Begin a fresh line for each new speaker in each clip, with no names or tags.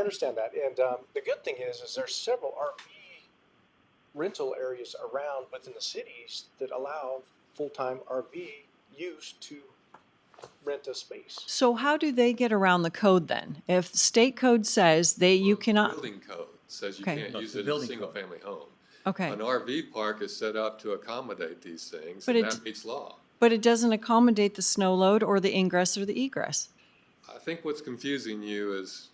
I understand that, and um, the good thing is, is there's several RV rental areas around within the cities that allow full-time RV use to rent a space.
So how do they get around the code then? If the state code says they, you
The
cannot,
Building code says you
Okay.
can't
No,
use
the
it as a
building code.
single-family home.
okay.
An RV park is set up to accommodate these things,
But
and
it-
that meets law.
But it doesn't accommodate the snow load or the ingress or the egress.
I think what's confusing you is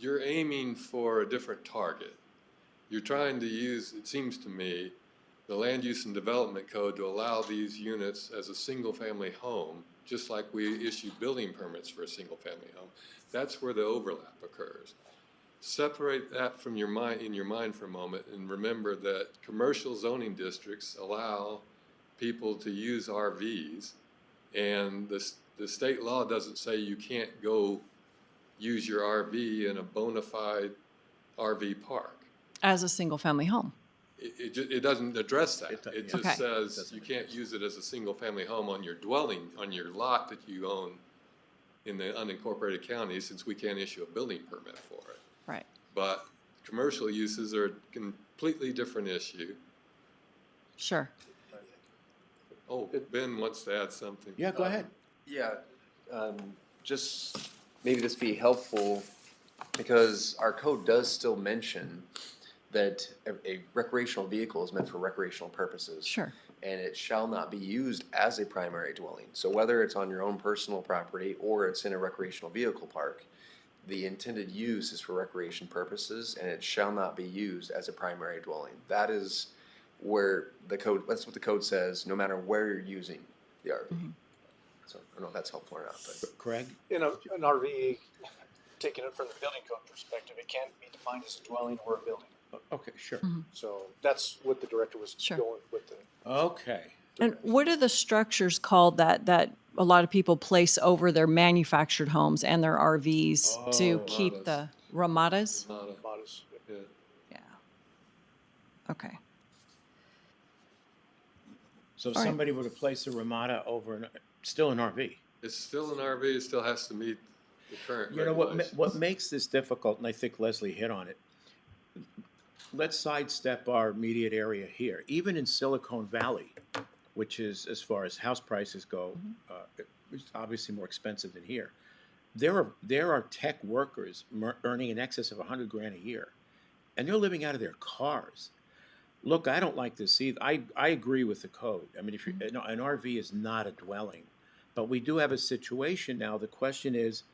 you're aiming for a different target. You're trying to use, it seems to me, the land use and development code to allow these units as a single-family home, just like we issue building permits for a single-family home. That's where the overlap occurs. Separate that from your mind, in your mind for a moment, and remember that commercial zoning districts allow people to use RVs and the, s- the state law doesn't say you can't go use your RV in a bona fide RV park.
as a single-family home.
It, it, ju- it doesn't address that.
It do-
It
yeah.
Okay.
just says
Doesn't
you can't use it as a single family home on your dwelling, on your lot that you own in the unincorporated county, since we can't issue a building permit for it.
Right.
But commercial uses are a completely different issue.
Sure.
Oh, Ben wants to add something.
Yeah, go ahead.
Yeah, um, just maybe this be helpful because our code does still mention that a, a recreational vehicle is meant for recreational purposes.
Sure.
And it shall not be used as a primary dwelling. So whether it's on your own personal property or it's in a recreational vehicle park, the intended use is for recreation purposes and it shall not be used as a primary dwelling. That is where the code, that's what the code says, no matter where you're using the RV. So I don't know if that's helpful or not, but.
Craig?
In a, an RV, taking it from the building code perspective, it can't be defined as a dwelling or a building.
Okay, sure.
Mm-hmm.
So that's what the director was
Sure.
going with the.
Okay.
And what are the structures called that, that a lot of people place over their manufactured homes and their RVs to
Oh.
keep the ramadas?
Not a-
modest.
yeah.
Yeah. Okay.
So if
All right.
somebody were to place a Ramada over an, still an RV.
It's still an RV, it still has to meet the current
You know, what, ma-
regulations.
what makes this difficult, and I think Leslie hit on it, let's sidestep our immediate area here. Even in Silicon Valley, which is, as far as house prices go, uh, it's obviously more expensive than here. There are, there are tech workers mer- earning in excess of a hundred grand a year, and they're living out of their cars. Look, I don't like this either. I, I agree with the code. I mean, if you, an an RV is not a dwelling, but we do have a situation now. The question is,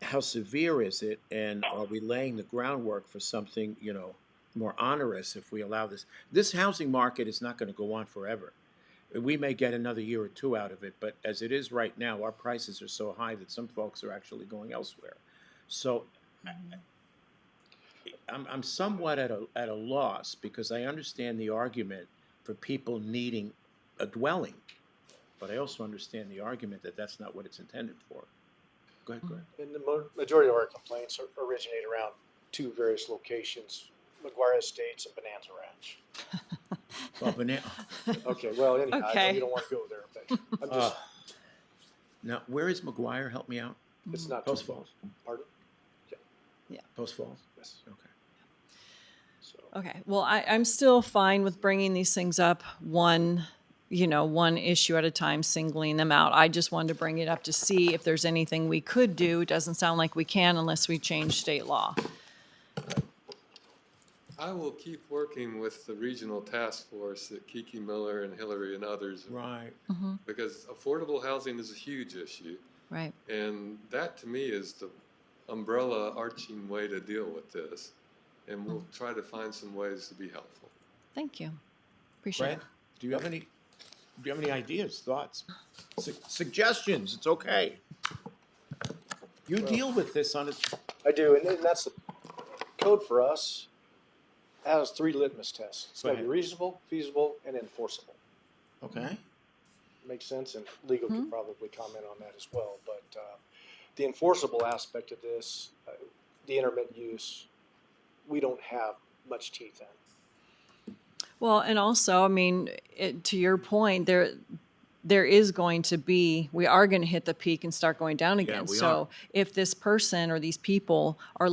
how severe is it and are we laying the groundwork for something you know more onerous if we allow this this housing market is not going to go on forever we may get another year or two out of it but as it is right now our prices are so high that some folks are actually going elsewhere so I'm, I'm somewhat at a, at a loss because i understand the argument for people needing a dwelling but i also understand the argument that that's not what it's intended for go ahead Greg.
And the mo- majority of our complaints are- originate around two various locations, McGuire Estates and Bonanza Ranch.
Well, but now,
Okay, well, anyhow, I know
Okay.
you don't want to go there, but I'm
uh,
just,
now, where is McGuire? Help me out.
it's not.
Post Falls.
Pardon?
Post Falls.
Yes,
Okay.
so.
Okay, well, I, I'm still fine with bringing these things up one, you know, one issue at a time, singling them out. I just wanted to bring it up to see if there's anything we could do. It Doesn't sound like we can unless we change state law.
I will keep working with the regional task force that Kiki Miller and Hillary and others,
Right.
because affordable housing is a huge issue.
Right.
And that to me is the umbrella arching way to deal with this. And we'll try to find some ways to be helpful.
Thank you. Appreciate
Brad,
it.
do you have any? Do you have any ideas, thoughts, su- suggestions? It's okay. You deal with this on a.
I do, and, and that's the code for us has three litmus tests. It's
Go
got to be
ahead.
reasonable, feasible, and enforceable.
Okay.
Makes sense, and legal can probably comment on that as well. But uh, the enforceable aspect of this, uh, the intermittent use, we don't have much teeth in.
Well, and also, I mean, it, to your point, there, there is going to be, we are going to hit the peak and start going down again.
we are.
So if this person or these people are